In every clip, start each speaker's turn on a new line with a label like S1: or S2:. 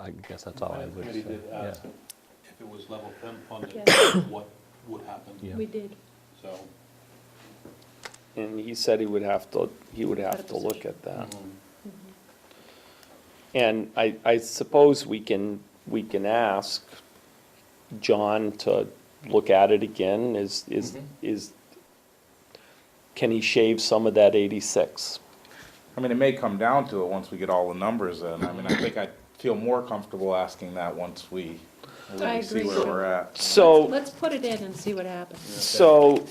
S1: I guess that's all I
S2: Finance
S1: would say.
S2: committee did ask
S1: Yeah.
S2: If it was level ten funded,
S3: Yes.
S2: what would happen?
S1: Yeah.
S3: We did.
S2: So,
S4: And he said he would have to, he would have to look at
S3: Mm-hmm.
S4: that.
S2: um,
S4: And I, I suppose we can, we can ask John to look at it again, is, is,
S2: Mhm.
S3: Mm-hmm.
S4: is, can he shave some of that eighty-six?
S5: I mean, it may come down to it once we get all the numbers in. I mean, I think I feel more comfortable asking that once we
S3: I
S5: really see
S3: agree.
S5: where we're at.
S4: So,
S3: Let's put it in and see what happens.
S4: so,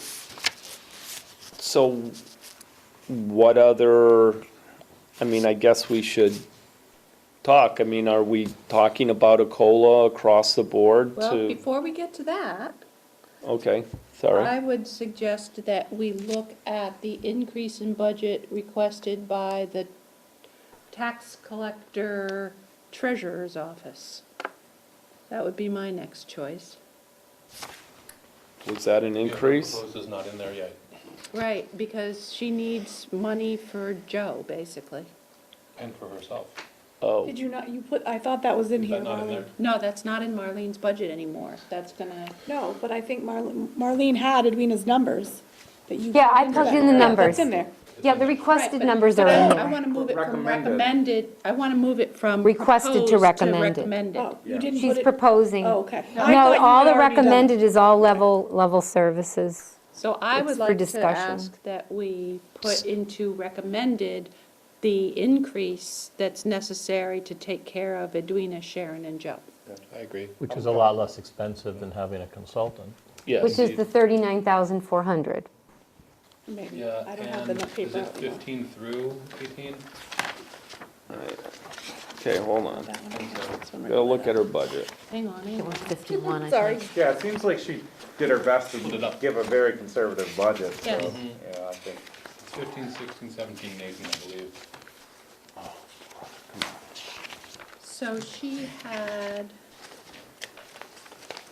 S4: so what other, I mean, I guess we should talk. I mean, are we talking about a COLA across the board to?
S3: Well, before we get to that,
S4: Okay, sorry.
S3: I would suggest that we look at the increase in budget requested by the tax collector treasurer's office. That would be my next choice.
S4: Was that an increase?
S2: Proposed is not in there yet.
S3: Right, because she needs money for Joe, basically.
S2: And for herself.
S4: Oh,
S6: Did you not, you put, I thought that was in
S2: Is
S6: here,
S2: that not in
S6: Marlene.
S2: there?
S3: No, that's not in Marlene's budget anymore. That's gonna,
S6: No, but I think Marlene, Marlene had Edwina's numbers that you.
S7: Yeah, I plugged in the
S6: Yeah,
S7: numbers.
S6: That's in there.
S7: Yeah, the
S3: Right,
S7: requested
S3: but-
S7: numbers are
S3: but I-
S7: in
S3: I
S7: there.
S3: want to move it from
S5: Recommended.
S3: recommended, I want to move it from.
S7: Requested to
S3: proposed
S7: recommended.
S3: recommended.
S6: Oh, you didn't put
S7: She's
S6: it.
S7: proposing.
S6: Oh, okay. I thought
S7: No,
S6: you
S7: all
S6: had
S7: the
S6: already done it.
S7: recommended is all level, level services.
S3: So I
S7: It's
S3: would
S7: for
S3: like to
S7: discussion.
S3: ask that we put into recommended the increase that's necessary to take care of Edwina, Sharon, and Joe.
S2: I agree.
S1: Which is a lot less expensive than having a consultant.
S7: Which
S4: yes.
S7: is the 39,400.
S6: Maybe,
S2: Yeah,
S6: I don't have the
S2: and
S6: nu-
S2: is
S6: paper.
S2: it fifteen through eighteen?
S4: Okay, hold on.
S6: That one, okay, that's one right
S4: Gotta
S6: there.
S4: look at her budget.
S3: Hang on, hang
S7: It
S3: on.
S7: was 51, I
S6: Sorry.
S7: think.
S5: Yeah, it seems like she did her best
S2: Split it
S5: to
S2: up.
S5: give a very conservative budget, so,
S3: Yes.
S5: yeah, I think.
S2: It's fifteen, sixteen, seventeen, and eighteen, I believe.
S3: So she had,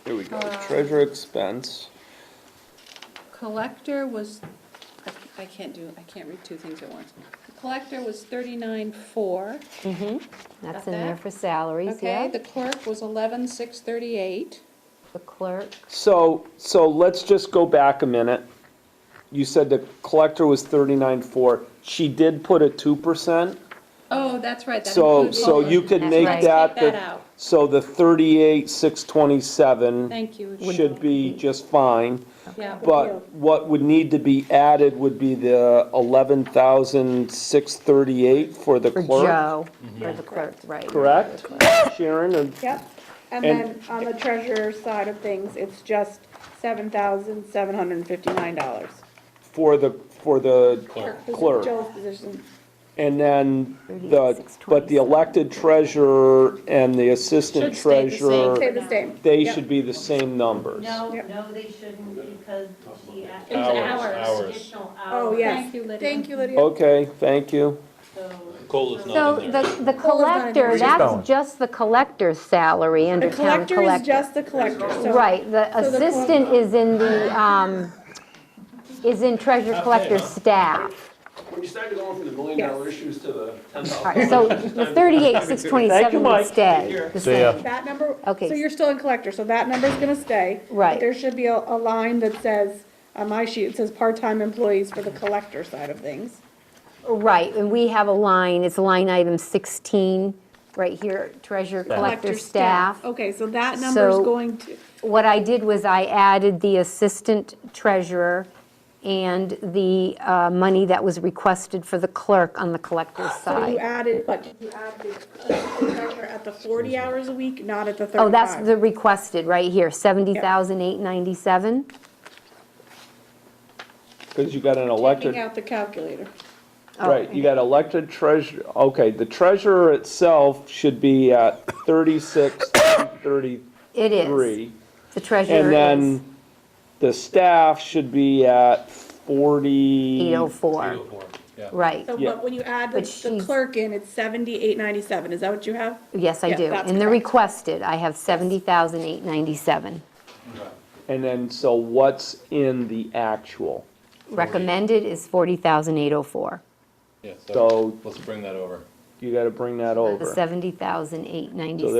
S4: Here we go.
S3: Uh.
S4: Treasure expense.
S3: collector was, I- I can't do, I can't read two things at once. Collector was thirty-nine, four.
S7: That's
S3: Got
S7: in there
S3: that?
S7: for salaries,
S3: Okay,
S7: yeah.
S3: the clerk was eleven, six, thirty-eight.
S7: The clerk,
S4: So, so let's just go back a minute. You said the collector was thirty-nine four. She did put a two percent,
S3: Oh, that's right. that
S4: so,
S3: included-
S4: so you could
S7: That's
S4: make
S7: right.
S4: that.
S3: Take that
S4: the-
S3: out.
S4: So the thirty-eight, six twenty-seven
S3: Thank you.
S4: should be just fine.
S3: Yeah.
S4: But what would need to be added would be the eleven thousand six thirty-eight for the
S7: for
S4: clerk.
S7: Joe, for the clerk, right.
S4: Correct, Sharon, and
S6: Yep, and
S4: And-
S6: then on the treasurer side of things, it's just seven thousand seven hundred and fifty-nine dollars.
S4: for the, for the clerk.
S6: Joe's position,
S4: And then the,
S7: 36,
S4: but the elected treasurer and the assistant
S3: Should stay the same.
S6: stay
S4: treasurer,
S6: the same.
S4: they
S6: Yep.
S4: should be the same numbers.
S8: No,
S6: Yep.
S8: no, they shouldn't, because she asked.
S3: It was hours.
S8: for Additional hours.
S6: Oh, yes.
S3: Thank you, Lydia.
S6: Thank you, Lydia.
S4: Okay, thank you.
S8: So,
S2: Cola's
S7: So
S2: not in there.
S7: the, the collector, that's just the collector's salary under
S6: The
S7: town
S6: collector is
S7: collector.
S6: just the collector, so.
S7: Right, the
S6: so the
S7: assistant is in the, um, is in treasure collector's staff.
S9: When you started going from the million
S6: Yes.
S9: dollar issues to the ten
S7: All
S9: thousand.
S7: right, so the thirty-eight, six
S4: Thank you,
S7: twenty-seven
S4: Mike.
S7: would stay the
S1: See ya.
S7: same.
S6: That number,
S7: Okay.
S6: so you're still in collector, so that number's gonna stay. but
S7: Right.
S6: There should be a, a line that says, on my sheet, it says part-time employees for the collector side of things.
S7: Right, and we have a line, it's line item sixteen, right here, treasurer, collector, staff.
S6: Okay, so that number's
S7: So-
S6: going to,
S7: What I did was I added the assistant treasurer and the uh, money that was requested for the clerk on the collector's
S6: so you
S7: side.
S6: added, but you added the collector at the forty hours a week, not at the thirty-five.
S7: Oh, that's the requested, right here, seventy thousand eight ninety-seven?
S4: Because you got an
S6: Taking
S4: elected,
S6: out the calculator.
S4: right, you got elected treasurer, okay, the treasurer itself should be at thirty-six, thirty-three.
S7: It is. The treasurer
S4: And
S7: is
S4: then the staff should be at forty.
S7: eight oh four,
S2: 804, yeah.
S7: right.
S6: So,
S4: Yeah.
S6: but when you add the
S7: But
S6: the
S7: she's-
S6: clerk in, it's seventy-eight ninety-seven, is that what you have?
S7: Yes, I
S6: Yeah,
S7: do.
S6: that's
S7: In the
S6: correct.
S7: requested, I have 70,897.
S4: And then, so what's in the actual?
S7: Recommended is 40,804.
S2: Yeah,
S4: So-
S2: let's bring that over.
S4: You gotta bring that
S7: The
S4: over.
S7: 70,897.